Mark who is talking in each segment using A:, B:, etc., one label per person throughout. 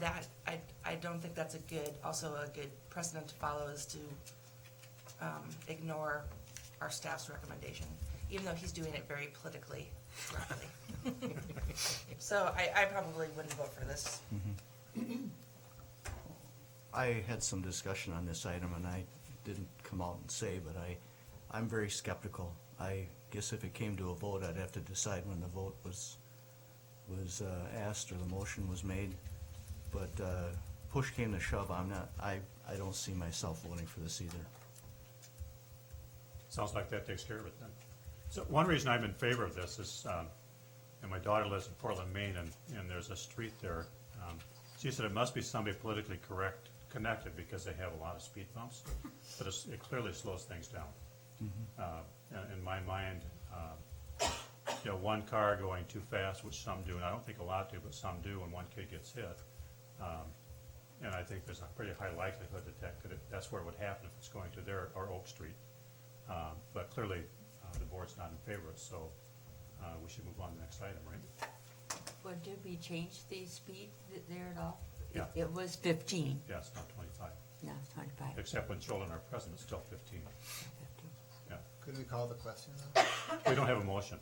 A: that, I, I don't think that's a good, also a good precedent to follow is to um, ignore our staff's recommendation, even though he's doing it very politically correctly. So I, I probably wouldn't vote for this.
B: I had some discussion on this item and I didn't come out and say, but I, I'm very skeptical. I guess if it came to a vote, I'd have to decide when the vote was, was uh, asked or the motion was made. But uh, push came to shove, I'm not, I, I don't see myself voting for this either.
C: Sounds like that takes care of it then. So one reason I'm in favor of this is, um, and my daughter lives in Portland, Maine, and, and there's a street there. Um, She said it must be somebody politically correct, connected, because they have a lot of speed bumps, but it's, it clearly slows things down. Uh, in- in my mind, um, you know, one car going too fast, which some do, and I don't think a lot do, but some do, and one kid gets hit. Um, And I think there's a pretty high likelihood that that could, that's where it would happen if it's going to there or Oak Street. Um, But clearly, uh, the board's not in favor, of it, so uh, we should move on to the next item, right?
D: Well, did we change the speed th- there at all?
C: Yeah.
D: It was fifteen,
C: Yeah, it's not twenty-five,
D: no, it's twenty-five.
C: except when children are present, it's still fifteen.
D: 15.
C: Yeah,
E: Could we call the question then?
C: we don't have a motion.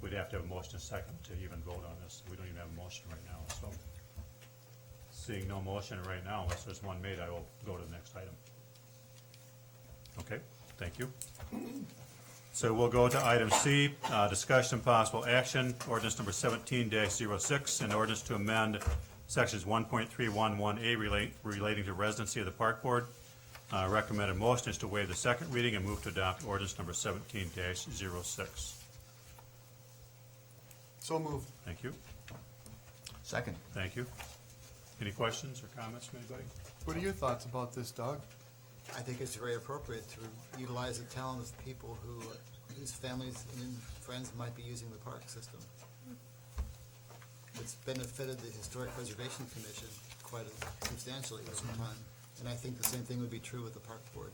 C: We'd have to have a motion second to even vote on this. We don't even have a motion right now, so. Seeing no motion right now, unless there's one made, I will go to the next item. Okay, thank you. So we'll go to item C, uh, discussion and possible action, ordinance number seventeen 6 an ordinance to amend sections one point three one one A relate, relating to residency of the park board. Uh, recommended motion is to waive the second reading and move to adopt ordinance number seventeen 6
E: So moved.
C: Thank you,
B: Second.
C: thank you. Any questions or comments from anybody?
F: What are your thoughts about this, Doug?
E: I think it's very appropriate to utilize the talent of people who, whose families and friends might be using the park system. It's benefited the Historic Preservation Commission quite substantially over time, and I think the same thing would be true with the park board.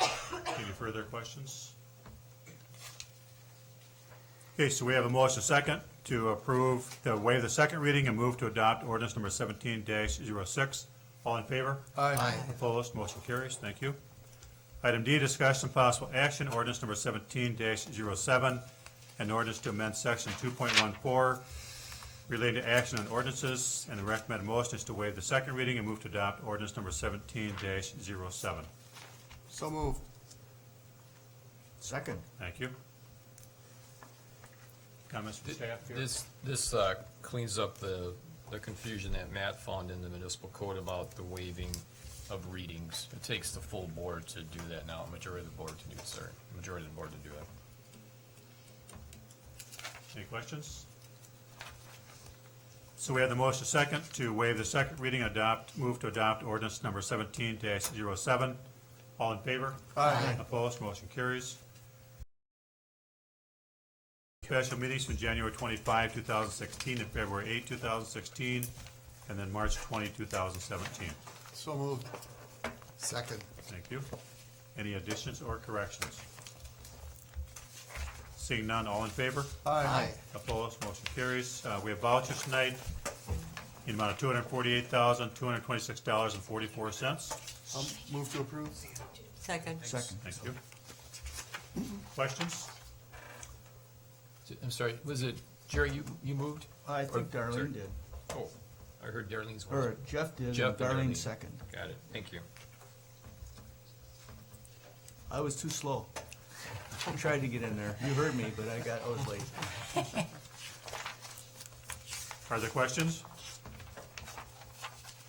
C: Any further questions? Okay, so we have a motion second to approve, to waive the second reading and move to adopt ordinance number seventeen 6 All in favor?
E: Aye.
C: Opposed, motion carries, thank you. Item D, discussion and possible action, ordinance number seventeen 7 an ordinance to amend section two point one four relating to action on ordinances, and the recommended motion is to waive the second reading and move to adopt ordinance number seventeen 7
F: So moved.
B: Second.
C: Thank you. Comments from staff here?
G: This, this uh, cleans up the, the confusion that Matt found in the municipal code about the waiving of readings. It takes the full board to do that now, majority of the board to do, it, sorry, majority of the board to do it.
C: Any questions? So we have the motion second to waive the second reading, adopt, move to adopt ordinance number seventeen 7 All in favor? Aye. Opposed, motion carries. Special meetings from January twenty-five, two thousand sixteen, and February eight, two thousand sixteen, and then March twenty, two thousand seventeen.
F: So moved.
E: Second.
C: Thank you. Any additions or corrections? Seeing none, all in favor?
E: Aye.
C: Opposed, motion carries. Uh, we have vouchers tonight in amount of two hundred forty-eight thousand, two hundred twenty-six dollars and forty-four cents.
F: I'll move Um, to approve.
D: Second.
B: Second.
C: Thank you. Questions?
G: I'm sorry, was it, Jerry, you, you moved?
B: I think
G: Or- sorry.
B: Darlene did,
G: Oh, I heard Darlene's was.
B: or Jeff did, and
G: Jeff and
B: Darlene
G: Darlene.
B: second.
G: Got it, thank you.
B: I was too slow. I tried to get in there. You heard me, but I got, I was late.
C: Are there questions?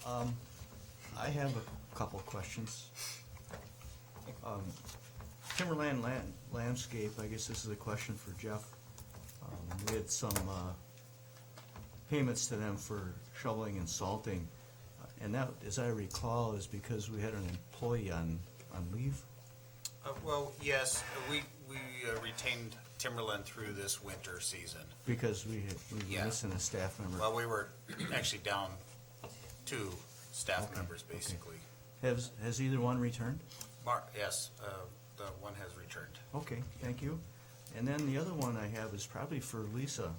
B: I have a couple of questions. Um, Timberland land, landscape, I guess this is a question for Jeff. Um, we had some, uh, payments to them for shoveling and salting. Uh, And that, as I recall, is because we had an employee on, on leave.
H: Uh, Well, yes, we, we uh, retained Timberland through this winter season.
B: Because we had, we were
H: Yeah.
B: missing a staff member.
H: Well, we were actually down two staff members, basically.
B: Has, has either one returned?
H: Mar, yes, uh, the one has returned.
B: Okay, thank you. And then the other one I have is probably for Lisa.